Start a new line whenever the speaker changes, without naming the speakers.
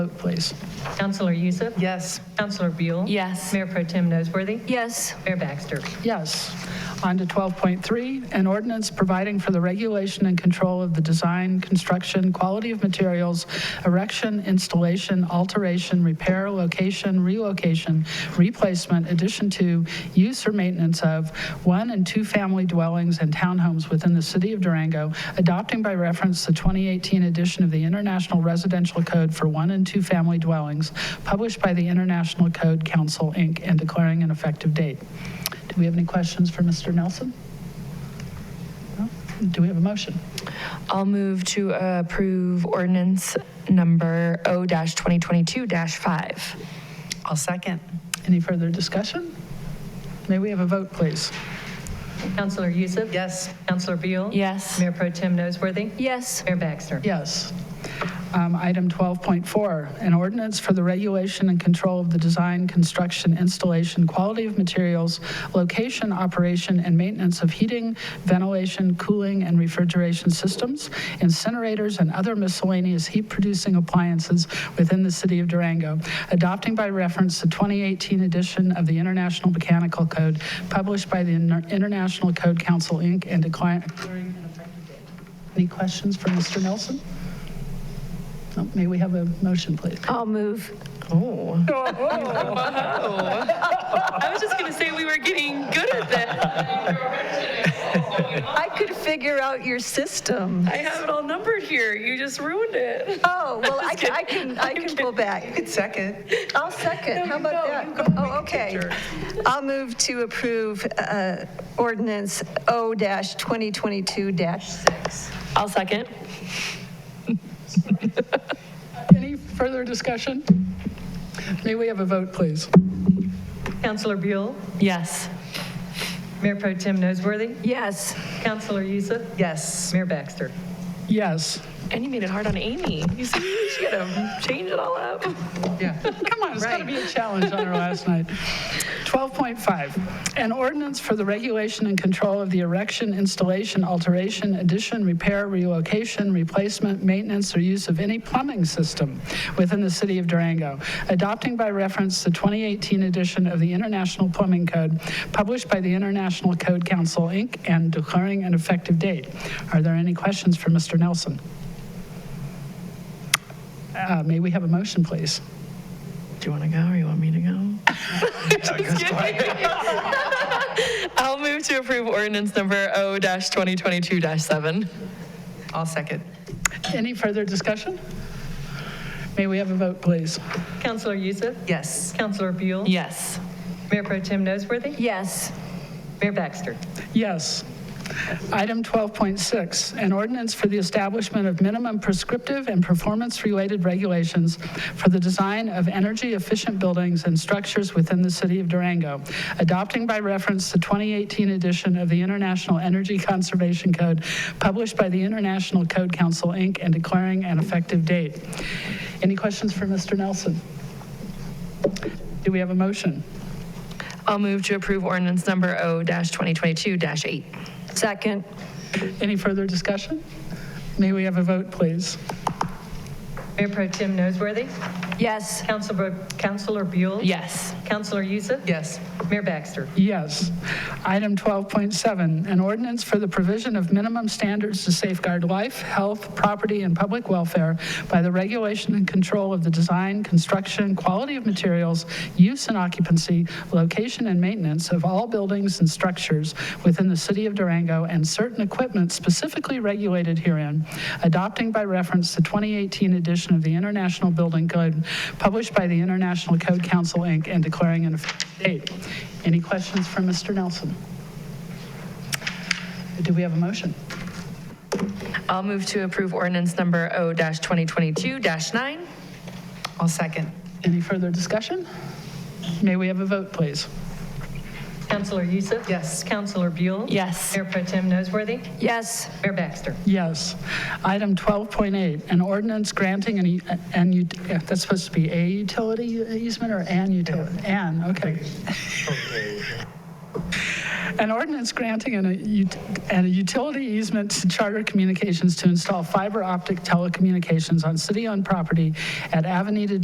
vote, please.
Counselor Youssef.
Yes.
Counselor Buell.
Yes.
Mayor Pro Tem Nosworthy.
Yes.
Mayor Baxter.
Yes. On to 12.3, an ordinance providing for the regulation and control of the design, construction, quality of materials, erection, installation, alteration, repair, location, relocation, replacement, addition to, use or maintenance of one and two-family dwellings and townhomes within the city of Durango, adopting by reference the 2018 edition of the International Residential Code for one and two-family dwellings, published by the International Code Council, Inc., and declaring an effective date. Do we have any questions for Mr. Nelson? No? Do we have a motion?
I'll move to approve ordinance number O-2022-5.
I'll second.
Any further discussion? May we have a vote, please?
Counselor Youssef.
Yes.
Counselor Buell.
Yes.
Mayor Pro Tem Nosworthy.
Yes.
Mayor Baxter.
Yes. Um, Item 12.4, an ordinance for the regulation and control of the design, construction, installation, quality of materials, location, operation, and maintenance of heating, ventilation, cooling, and refrigeration systems, incinerators, and other miscellaneous heat-producing appliances within the city of Durango, adopting by reference the 2018 edition of the International Mechanical Code published by the Inter- International Code Council, Inc., and declaring an effective date. Any questions for Mr. Nelson? Oh, May we have a motion, please?
I'll move.
Oh.
Oh, I was just gonna say we were getting good at that.
I could figure out your system.
I have it all numbered here. You just ruined it.
Oh, well, I can, I can, I can pull back.
Second.
I'll second. How about that? Oh, okay. I'll move to approve uh, ordinance O-2022-6.
I'll second.
Any further discussion? May we have a vote, please?
Counselor Buell.
Yes.
Mayor Pro Tem Nosworthy.
Yes.
Counselor Youssef.
Yes.
Mayor Baxter.
Yes.
And you made it hard on Amy. You see, she gotta change it all up.
Yeah. Come on, it's got to be a challenge on our last night. 12.5, an ordinance for the regulation and control of the erection, installation, alteration, addition, repair, relocation, replacement, maintenance, or use of any plumbing system within the city of Durango, adopting by reference the 2018 edition of the International Plumbing Code published by the International Code Council, Inc., and declaring an effective date. Are there any questions for Mr. Nelson? Uh, May we have a motion, please?
Do you wanna go or you want me to go? I'll move to approve ordinance number O-2022-7.
I'll second.
Any further discussion? May we have a vote, please?
Counselor Youssef.
Yes.
Counselor Buell.
Yes.
Mayor Pro Tem Nosworthy.
Yes.
Mayor Baxter.
Yes. Item 12.6, an ordinance for the establishment of minimum prescriptive and performance-related regulations for the design of energy-efficient buildings and structures within the city of Durango, adopting by reference the 2018 edition of the International Energy Conservation Code published by the International Code Council, Inc., and declaring an effective date. Any questions for Mr. Nelson? Do we have a motion?
I'll move to approve ordinance number O-2022-8.
Second.
Any further discussion? May we have a vote, please?
Mayor Pro Tem Nosworthy.
Yes.
Counselor, Counselor Buell.
Yes.
Counselor Youssef.
Yes.
Mayor Baxter.
Yes. Item 12.7, an ordinance for the provision of minimum standards to safeguard life, health, property, and public welfare by the regulation and control of the design, construction, quality of materials, use and occupancy, location and maintenance of all buildings and structures within the city of Durango and certain equipment specifically regulated herein, adopting by reference the 2018 edition of the International Building Code published by the International Code Council, Inc., and declaring an effective date. Any questions for Mr. Nelson? Do we have a motion?
I'll move to approve ordinance number O-2022-9.
I'll second.
Any further discussion? May we have a vote, please?
Counselor Youssef.
Yes.
Counselor Buell.
Yes.
Mayor Pro Tem Nosworthy.
Yes.
Mayor Baxter.
Yes. Item 12.8, an ordinance granting an, e- an, ut- yeah, that's supposed to be a utility easement or an utility? An, okay. An ordinance granting an, a ut- and a utility easement to Charter Communications to install fiber optic telecommunications on city-owned property at Avenida